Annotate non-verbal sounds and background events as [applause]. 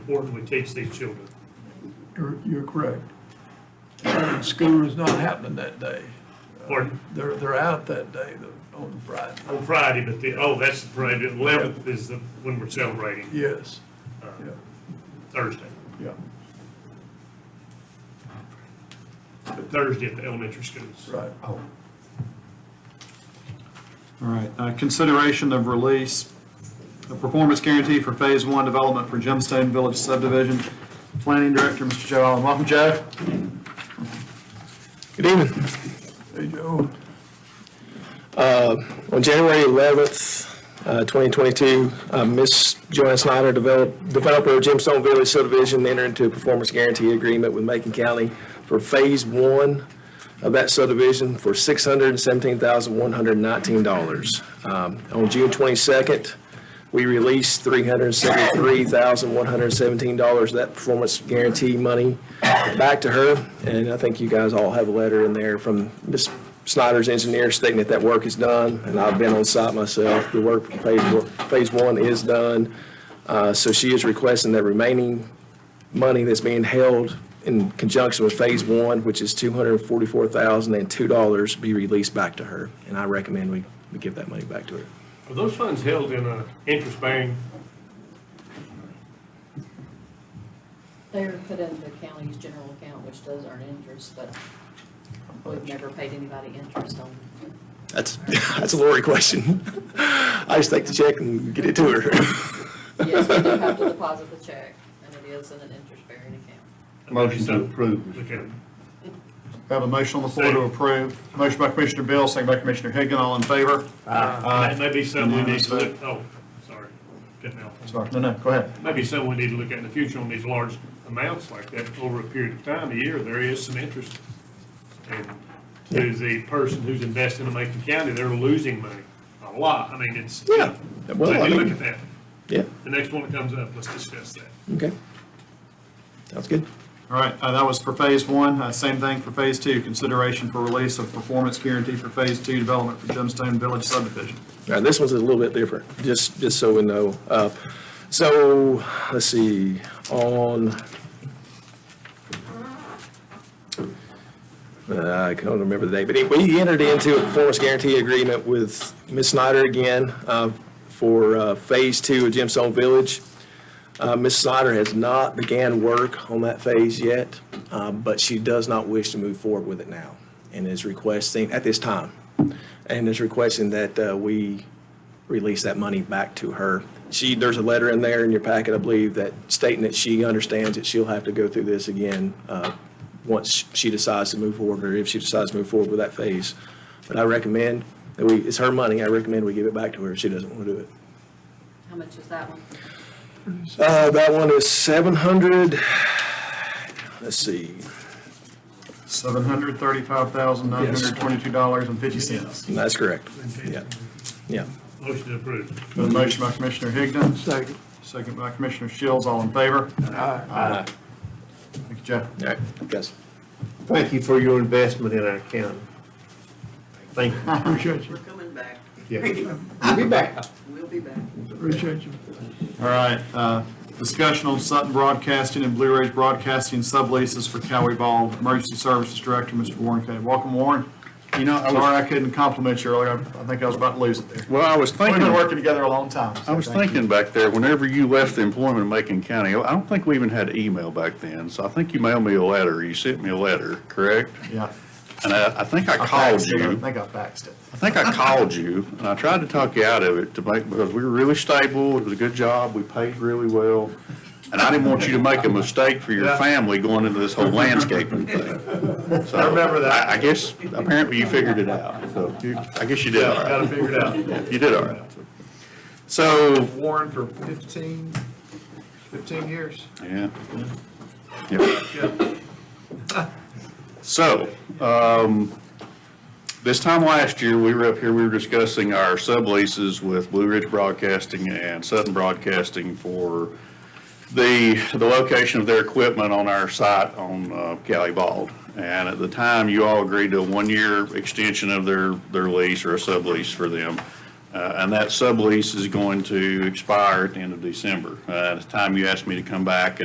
important we teach these children. You're, you're correct. And School is not happening that day. Pardon? They're, they're out that day, the- on Friday. On Friday, but the, oh, that's the Friday, the eleventh is the, when we're celebrating, Yes, yeah, Thursday. yeah, But Thursday at the elementary schools. right. Oh. All right, uh, consideration of release, a performance guarantee for Phase One development for Gemstone Village subdivision. Planning Director, Mr. Joe Allen, welcome, Joe. Good evening. Hey, Joe, On January 11th, uh, 2022, uh, Ms. Joanne Snyder, develop- developer of Gemstone Village subdivision, entered into a performance guarantee agreement with Macon County for Phase 1 of that subdivision for $617,119. Um, On June 22nd, we released $373,117, of that performance guarantee money, back to her. And I think you guys all have a letter in there from Ms. Snyder's engineer stating that that work is done. And I've been on site myself. The work for phase, one- phase one is done. Uh, So she is requesting that remaining money that's being held in conjunction with phase one, which is $244,002, be released back to her. And I recommend we, we give that money back to her. Are those funds held in a interest bearing? They were put in the county's general account, which does earn interest, but we've never paid anybody interest on it. That's, [laughs] that's a Lori question. [laughs] I just take the check and get it to her. [laughs] Yes, we do have to deposit the check, and it is in an interest-bearing account. Motion to approve. We can, Have a motion on the floor to approve. Motion by Commissioner Bill, second by Commissioner Higgin, all in favor? that may be something we need to Unanimous look, oh, sorry, cutting out. Sorry, no, no, go ahead. Maybe something we need to look at in the future on these large amounts like that, over a period of time, a year, there is some interest. And to the person who's investing in Macon County, they're losing money, a lot, I mean, it's. Yeah. So Well, I you look mean- at that, Yeah, the next one that comes up, let's discuss that. okay. Sounds good. All right, uh, that was for phase one. Uh, Same thing for phase two, consideration for release of performance guarantee for phase two development for Gemstone Village subdivision. All right, this one's a little bit different, just, just so we know. Uh, So, let's see, on, Uh, I can't remember the date, but he- we entered into a performance guarantee agreement with Ms. Snyder again uh, for uh, Phase Two of Gemstone Village. Uh, Ms. Snyder has not began work on that phase yet, uh, but she does not wish to move forward with it now and is requesting, at this time, and is requesting that uh, we release that money back to her. She, there's a letter in there in your packet, I believe, that stating that she understands that she'll have to go through this again uh, once she decides to move forward, or if she decides to move forward with that phase. But I recommend that we, it's her money, I recommend we give it back to her if she doesn't want to do it. How much is that one? Uh, That one is 700, let's see, Seven hundred thirty-five thousand nine hundred twenty-two dollars and fifty cents. that's correct. Yeah, yeah. Motion to approve. The motion by Commissioner Higdon, second. second by Commissioner Shields, all in favor? Aye. All Thank you, Jeff. right, guys. Thank you for your investment in our county. Thank you. [laughs] Appreciate you, We're coming back. [laughs] Yeah. I'll be back. We'll be back. appreciate you. All right, uh, discussion on Sutton Broadcasting and Blue Ridge Broadcasting subleases for Cowie Ball Emergency Services Director, Mr. Warren K. Welcome, Warren. You know, sorry I couldn't compliment you earlier. I think I was about to lose it there. Well, I was We've thinking, been I working together a long time. so was thank you. thinking back there, whenever you left the employment of Macon County, I don't think we even had email back then. So I think you mailed me a letter, you sent me a letter, correct? Yeah. And I, I think I I called faxed it. I you. think I faxed it. I think I called you and I tried to talk you out of it to make, because we were really stable, it was a good job, we paid really well. And I didn't want you to make a mistake for your Yeah. family going into this whole landscaping thing. I remember that. I guess apparently you figured it out, so you, I guess you did all right. Got it figured out. You did all right. So, Warren for 15, 15 years. yeah. Yep. So, um, this time last year, we were up here, we were discussing our subleases with Blue Ridge Broadcasting and Sutton Broadcasting for the, the location of their equipment on our site on uh, Cali Bald. And at the time, you all agreed to a one-year extension of their, their lease or a sublease for them. Uh, And that sublease is going to expire at the end of December. Uh, At the time you asked me to come back